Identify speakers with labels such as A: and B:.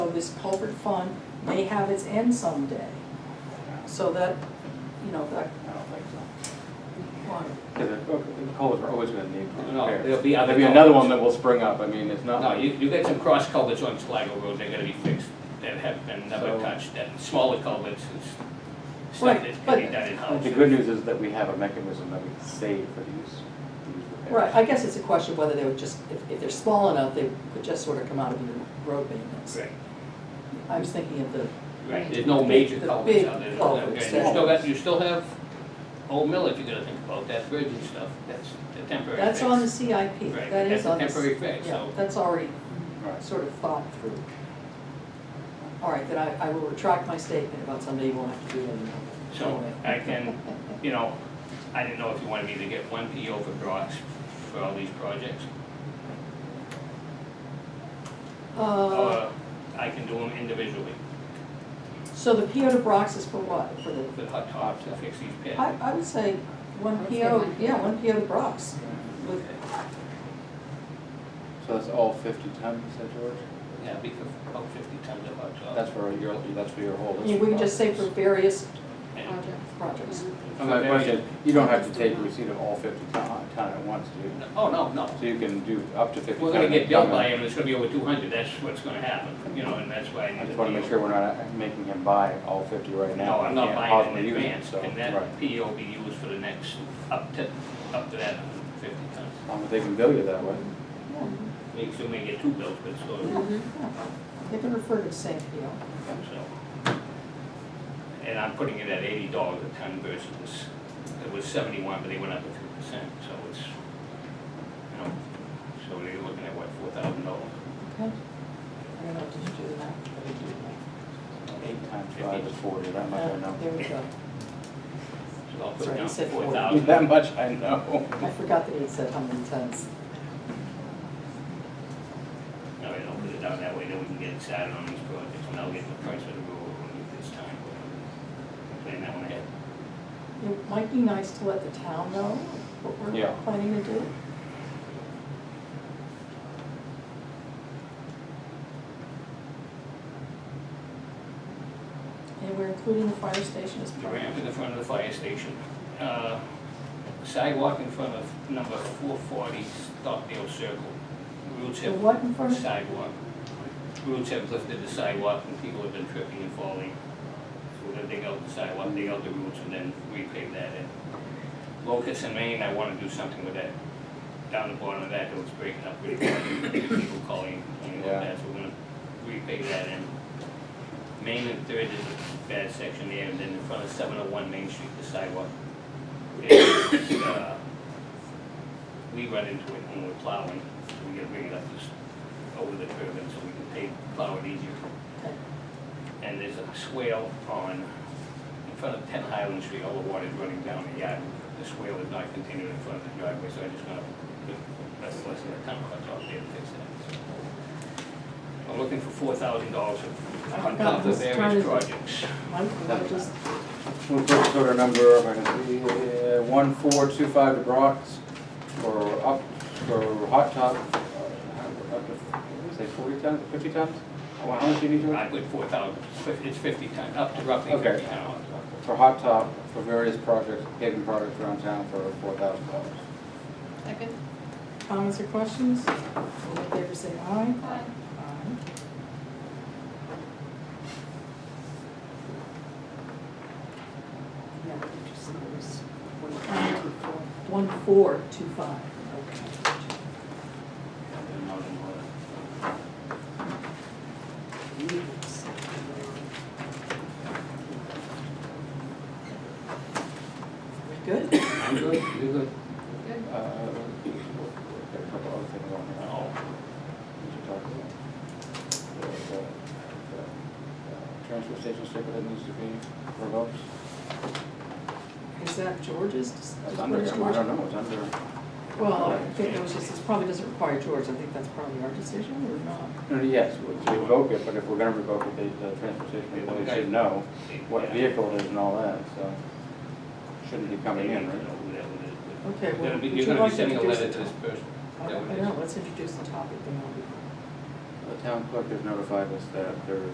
A: this culvert fund may have its end someday. So that, you know, that,
B: I don't think so.
A: well,
B: Because the the culverts are always gonna need
C: No,
B: repairs.
C: there'll be other
B: There'll be another one
C: culverts.
B: that will spring up, I mean, it's not
C: Oh, No,
B: like,
C: you, you got some cross culverts on Sligo Road, they're gonna be fixed, that have been never
B: So-
C: touched, and smaller culverts, it's stuff
A: Right,
C: that can
A: but-
C: be done in-house.
B: the good news is that we have a mechanism that we can save for these, these repairs.
A: right, I guess it's a question of whether they would just, if, if they're small enough, they could just sort of come out of your road maintenance.
C: Right,
A: I was thinking of the,
C: right, there's no major
A: The
C: culverts
A: big
C: out there.
A: culverts,
C: Okay, You
A: yeah.
C: still got, you still have Old Mill, if you're gonna think about that bridge and stuff, that's a temporary fix.
A: that's on the CIP,
C: Right,
A: that
C: that's
A: is
C: a
A: on the.
C: temporary fix,
A: Yeah,
C: so-
A: that's already
B: Right.
A: sort of thought through. All right, then I, I will retract my statement about someday you won't have to do it anymore.
C: So I can, you know, I didn't know if you wanted me to get one PO for Brock's for all these projects,
A: Uh,
C: or I can do them individually
A: so the PO to Brox is for what, for the,
C: for the hot tops to fix these pits.
A: I, I would say one
D: I'd say
A: PO,
D: one.
A: yeah, one PO to Brox. With-
B: So that's all fifty tons, you said, George?
C: Yeah, it'd be for about fifty tons of hot tops.
B: That's for your, that's for your whole.
A: I mean, we can just say for various
C: And-
D: project.
A: projects.
B: On that question, you don't have to take receipt of all fifty ton, ton at once, do you?
C: Oh, no, no,
B: So you can do up to fifty ton.
C: we're gonna
B: and
C: get billed
B: come in.
C: by him, it's gonna be over two hundred, that's what's gonna happen, you know, and that's why I
B: I
C: need
B: just
C: to
B: wanna make sure we're not making him buy all fifty right now.
C: No, I'm not
B: Can't
C: buying
B: possibly
C: it in
B: use it,
C: advance,
B: so,
C: and
B: right.
C: that PO will be used for the next, up to, up to that fifty tons.
B: As long as Um, they can bill you that way.
C: Maybe soon we get two bills, but it's sort of-
A: They can refer to the same PO.
C: so. And I'm putting it at eighty dollars a ton versus, this- it was seventy-one, but they went up to three percent, so it's, you know, so they're looking at what, four thousand dollars?
A: Okay. I don't know, did you do the math? I didn't do the math.
B: Eight times five is forty, that much I
A: Uh, There
B: know.
A: we go.
C: So I'll
A: That's
C: put
A: right,
C: down
A: you said
C: four
B: That
C: thousand.
B: much I know.
A: I forgot that he said how many tons.
C: No, I don't put it down that way, then we can get excited on these projects, and I'll get the price of the road when it's time. Plan that one ahead.
A: It might be nice to let the town know what we're
B: Yeah.
A: planning to do. And we're including the fire station as
C: The
A: part of
C: ramp in the front of the fire station. Uh, Sidewalk in front of number four forty Stockdale Circle. Roots
A: The
C: have
A: what in front of?
C: sidewalk. Roots have lifted the sidewalk and people have been tripping and falling. So we're gonna dig out the sidewalk, dig out the roots and then repave that in. Locust and Maine, I wanna do something with that. Down the bottom of that, it was breaking up really bad. People calling, complaining about
B: Yeah.
C: that, so we're gonna repave that in. Main and Third is a bad section there, and then in front of seven oh one Main Street, the sidewalk. is, uh, We run into it when we're plowing, so we gotta bring it up just over the curb, and so we can pave, plow it easier.
A: Okay.
C: And there's a swale on, in front of ten Highland Street, all the water's running down the yard. The swale is not continued in front of the driveway, so I just gonna, that's less than a ton, that's all there to fix that. so. I'm looking for four thousand dollars on top of
A: Just trying to-
C: various projects.
A: I'm, I'm just,
B: We'll put sort of number, if I can see, uh, one four two five to Brock's for up, for hot top, uh, up to, what did I say forty tons, fifty tons? How how much do you need, George?
C: I put four thousand, it's fifty ton, up to roughly
B: Okay.
C: fifty ton.
B: for hot top, for various projects, paving projects around town for four thousand dollars.
D: Second?
A: comments or questions? All in favor, say aye.
D: Aye.
A: Aye. Yeah, what did you say it was? One four two five, okay. Good?
C: I'm good, you're good.
D: Good.
B: Uh, got a couple other things on here.
C: Oh,
B: we should talk about. The- the- the, uh, Transfer station sticker that needs to be revoked.
A: Is that George's? Just-
B: That's
A: just
B: under,
A: where's
B: I don't
A: George?
B: know, it's under.
A: Well, I think that was just, this probably doesn't require George, I think that's probably our decision or not.
B: No, no, Yes, we should revoke it, but if we're gonna revoke it, the, the transfer station employees should know what
C: Yeah.
B: vehicle it is and all that, so. Shouldn't be coming in,
C: Whatever
B: right?
C: it
A: Okay,
C: is.
A: well,
C: You're gonna be-
A: would
C: You're
A: you
C: gonna
A: like to
C: be sending a
A: introduce the
C: letter to this person.
A: I
C: That
A: don't
C: would
A: I
C: be-
A: know, let's introduce the topic, then I'll be.
B: The town clerk has notified us that there is